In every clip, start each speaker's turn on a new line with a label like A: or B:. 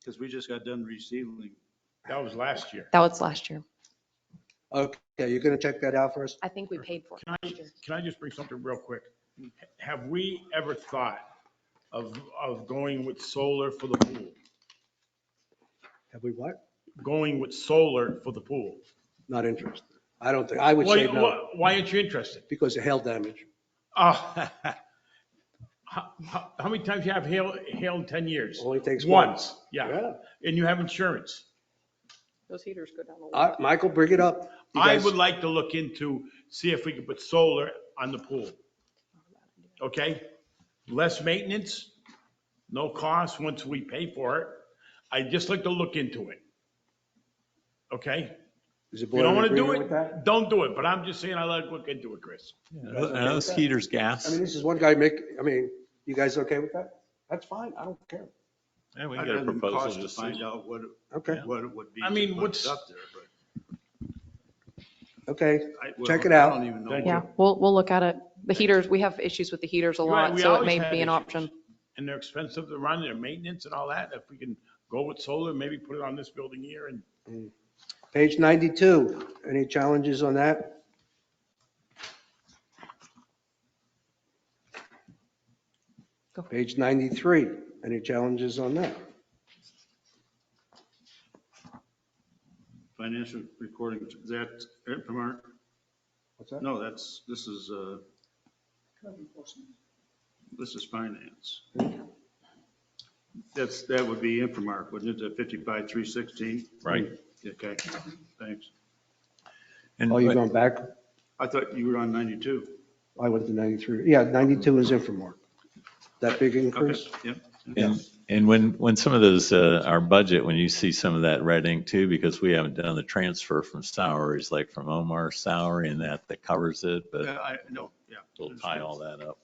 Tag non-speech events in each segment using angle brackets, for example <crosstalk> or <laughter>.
A: Because we just got done resealing.
B: That was last year.
C: That was last year.
D: Okay, you're going to check that out for us?
C: I think we paid for
B: Can
C: it
B: I,
C: last year.
B: can I just bring something real quick? Have we ever thought of, of going with solar for the pool?
D: Have we what?
B: Going with solar for the pool?
D: Not interested. I don't think, I would
B: Why,
D: say no,
B: why- why aren't you interested?
D: because of hail damage.
B: Oh. <laughs> How, how- how many times you have hail, hail in 10 years?
D: Only takes one.
B: Once, yeah. And you have insurance.
C: Those heaters go down a lot.
D: Uh, Michael, bring it up. You
B: I
D: guys-
B: would like to look into, see if we could put solar on the pool. Okay? Less maintenance, no cost once we pay for it. I'd just like to look into it. Okay?
D: Is the
B: If you don't
D: board
B: want
D: in
B: to do
D: agreement with that?
B: it, don't do it, but I'm just saying I like to look into it, Chris.
E: And those heaters
D: I
E: gas.
D: mean, this is one guy make, I mean, you guys okay with that? That's fine, I don't care.
E: And we
A: I'd
E: can get a
A: rather cost
E: proposal
A: to
E: just
A: find
E: see.
A: out what,
D: Okay,
A: what it would be.
B: I
A: to
B: mean,
A: put it
B: what's-
A: Up there, but.
D: okay.
A: I- well,
D: Check it
A: I
D: out.
A: don't even know.
B: Thank
A: what-
C: Yeah, we'll, we'll look at it. The heaters, we have issues with the heaters a
B: Right,
C: lot,
B: we
C: so it
B: always
C: may
B: have
C: be an
B: issues.
C: option.
B: And they're expensive to run, their maintenance and all that. If we can go with solar, maybe put it on this building here and
D: Page 92, any challenges on that?
C: Go.
D: Page 93, any challenges on that?
A: Financial recording, is that, uh, from our-
D: What's that?
A: no, that's, this is, uh, this is finance. That's, that would be Infomark, wouldn't it, fifty-five, three sixteen?
E: Right.
A: Okay, thanks.
E: And
D: Oh, you're going back?
A: I thought you were on ninety-two.
D: I went to 93. Yeah, 92 is Infomark. That big
A: Okay,
D: increase?
A: yep.
E: And, and when, when some of those, uh, our budget, when you see some of that red ink too, because we haven't done the transfer from salaries, like from Omar's salary and that, that covers it, but
A: Yeah, I, no, yeah.
E: we'll tie all that up.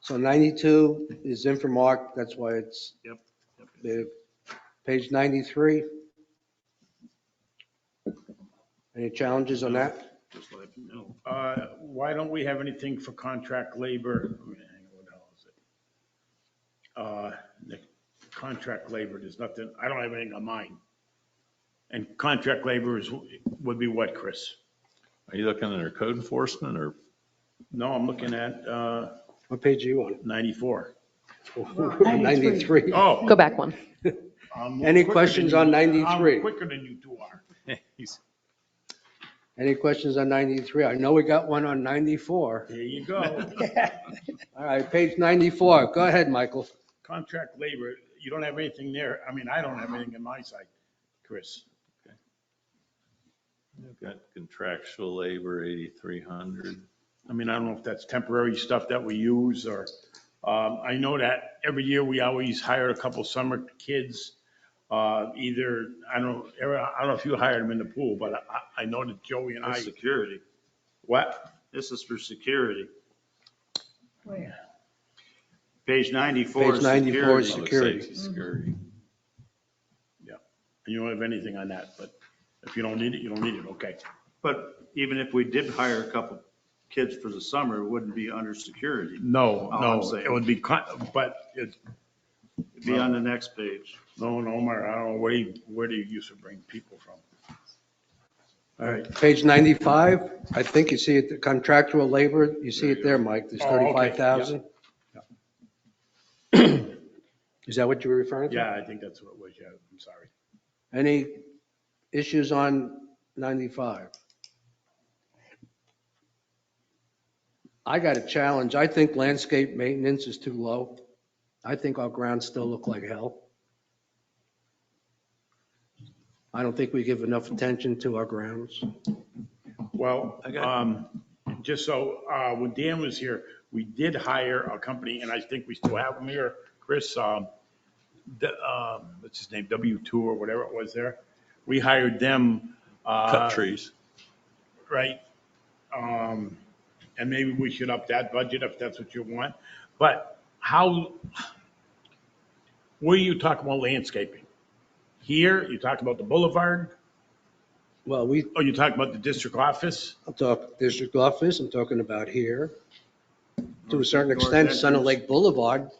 D: So 92 is Infomark, that's why it's
A: Yep, yep.
D: the, page 93. Any challenges on that?
A: Just like, no.
B: Uh, Why don't we have anything for contract labor? Hang on, what the hell is it? Uh, the Contract labor, there's nothing, I don't have anything on mine. And contract labor is, would be what, Chris?
E: Are you looking under code enforcement or?
B: No, I'm looking at uh,
D: What page are you on?
B: 94.
D: 93.
B: Oh.
C: Go back one.
B: I'm
D: Any
B: quicker
D: questions
B: than
D: on
A: Um,
B: you-
D: 93?
B: I'm quicker than you two are.
D: Any questions on 93? I know we got one on 94.
B: There you
D: <laughs>
B: go.
D: All right, page 94. Go ahead, Michael.
B: Contract labor, you don't have anything there. I mean, I don't have anything on my side, Chris.
E: Got contractual labor, 8,300.
B: I mean, I don't know if that's temporary stuff that we use or, um, I know that every year we always hire a couple summer kids. Uh, either, I don't, Eric, I don't know if you hired them in the pool, but I, I know that Joey and I,
A: That's security.
B: what?
A: This is for security.
B: Where?
A: Page 94
D: Page
A: is
D: 94 is
A: security.
E: Public
D: Security.
E: safety, Security.
B: You don't have anything on that, but if you don't need it, you don't need it, okay.
A: But even if we did hire a couple kids for the summer, it wouldn't be under security.
B: No,
A: Oh, I'm
B: no,
A: saying-
B: it would be, con- but it's,
A: It'd be on the next page.
B: no, no, Omar, I don't know, where, you- where do you used to bring people from?
D: All right, page 95. I think you see it, the contractual labor, you see it there, Mike. There's
B: Oh, okay, yeah.
D: 35,000. Is that what you were referring to?
B: Yeah, I think that's what it was, yeah, I'm sorry.
D: Any issues on 95? I got a challenge. I think landscape maintenance is too low. I think our grounds still look like hell. I don't think we give enough attention to our grounds.
B: Well,
E: Okay.
B: um, just so, uh, when Dan was here, we did hire a company, and I think we still have them here, Chris, um, the, um, what's his name, W2 or whatever it was there. We hired them, uh,
E: Cut trees.
B: right? Um, and maybe we should up that budget if that's what you want, but how, where you talk about landscaping? Here, you talk about the boulevard,
D: Well, we
B: or you talk about the district office?
D: I'm talking district office, I'm talking about here. To a certain
A: North
D: extent, Center
A: entrance.
D: Lake Boulevard,